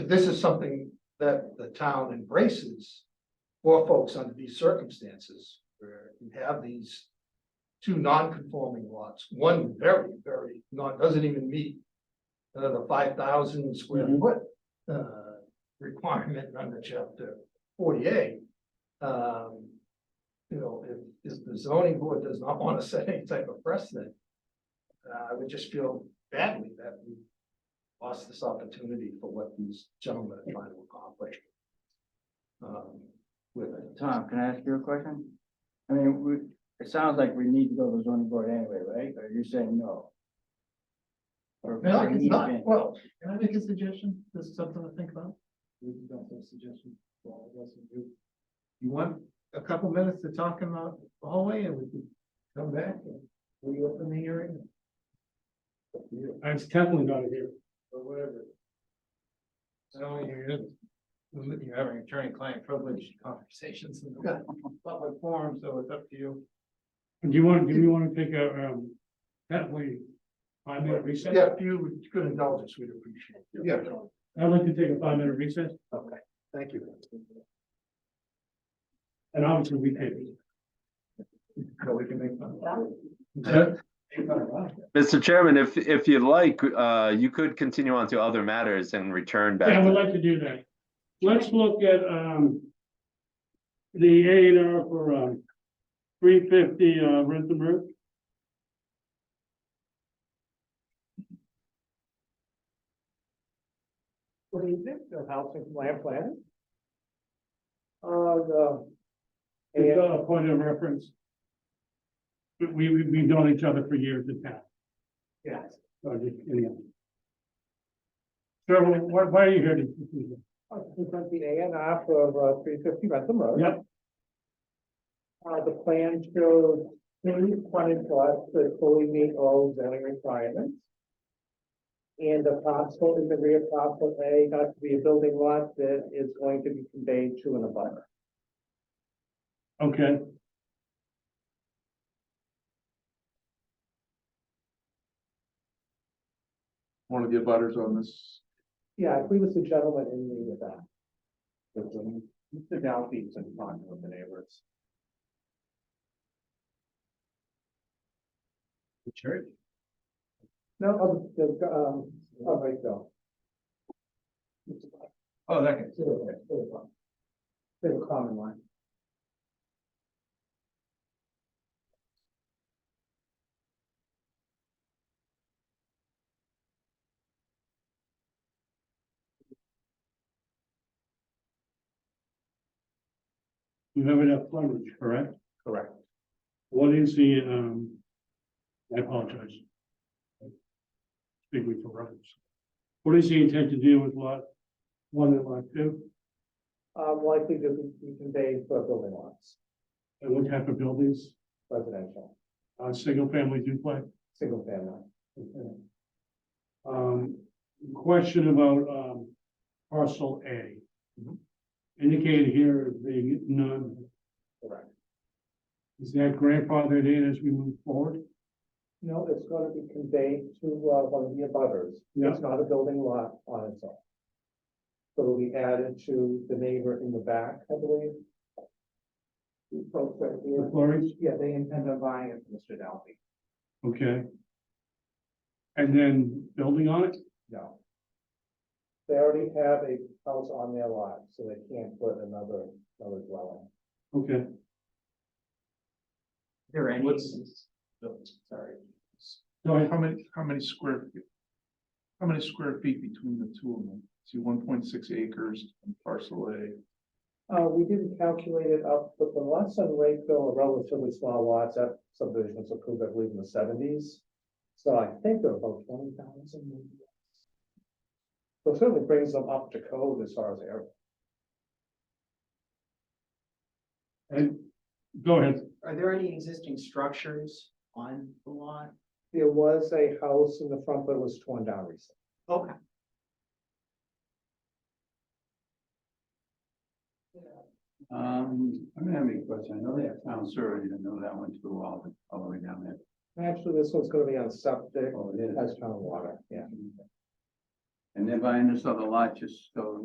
this is something that the town embraces for folks under these circumstances, where you have these two non-conforming lots, one very, very, not, doesn't even meet uh, the five thousand square Mhm. foot uh, requirement under chapter forty-eight. Um, you know, if, if the zoning board does not want to set any type of precedent, uh, I would just feel badly that we lost this opportunity for what these gentlemen are trying to accomplish. Um, with it. Tom, can I ask you a question? I mean, we, it sounds like we need to go to the zoning board anyway, right? Or you're saying no? Or No, we it's need to not, ban- well, Can I make a suggestion? This is something to think about. You want a couple minutes to talk in the hallway and we can come back and reopen the hearing? It's definitely not here. Or whatever. So you're, you're having attorney-client privilege conversations in Yeah. the public forum, so it's up to you. Do you want, do you want to take a, um, definitely five-minute recess? yeah, if you could indulge us, we'd appreciate it. Yeah. I'd like to take a five-minute recess, Thank you. and obviously we can. No, we can make fun Mr. Chairman, if, if you'd like, uh, you could continue on to other matters and return back. Yeah, I to- would like to do that. Let's look at, um, the A and R for, um, three fifty, uh, Rentham Road. What is it? The housing land plan? Uh, the. It's a point of reference. We, we, we've known each other for years in town. Yes. So just, anyhow. Sir, why, why are you here? to- The A and R for uh, three fifty Rantham Road. Yep. Uh, the plan shows three frontage lots that fully meet all zoning requirements. And the parcel in the rear parcel A got to be a building lot that is going to be conveyed to an abutter. Okay. one of the abutters on this. Yeah, I believe it's the gentleman in the back. Mr. Dalby's in front of the neighbors. The church? No, oh, the, um, oh, right, no. Oh, that guy. It's a common one. You have enough frontage, correct? Correct. What is the, um, I apologize. Speaking for reference. What is the intent to do with lot one and lot two, Um, likely to be conveyed for building lots, and what type of buildings, residential, uh, single family duplex? single family. Okay. Um, question about, um, parcel A. Mhm. Indicated here as being none, Correct. is that grandfathered in as we move forward? No, it's gonna be conveyed to, uh, one of the abutters. Yeah. It's not a building lot on its own. So it'll be added to the neighbor in the back, I believe. The folks right The here. Florries, Yeah, they intend on buying it, from Mr. Dalby. okay. And then building on it, No. They already have a house on their lot, so they can't put another, another dwelling. okay, There any? Sorry. go ahead, How many, how many square? feet? How many square feet between the two of them? See, one point six acres and parcel A. Uh, we didn't calculate it up, but the lots on Lakeville are relatively small lots, that subdivision was approved, I believe, in the seventies. So I think they're about twenty thousand. maybe. So it certainly brings them up to code as far as air. and, go ahead, Are there any existing structures on the lot? There was a house in the front, but it was torn down recently. Okay. Um, I'm gonna have a question. I know they have town survey, I didn't know that one too well, but all the way down there. Actually, this one's gonna be on septic, Oh, it is. has town water, yeah. And they're buying this other lot just so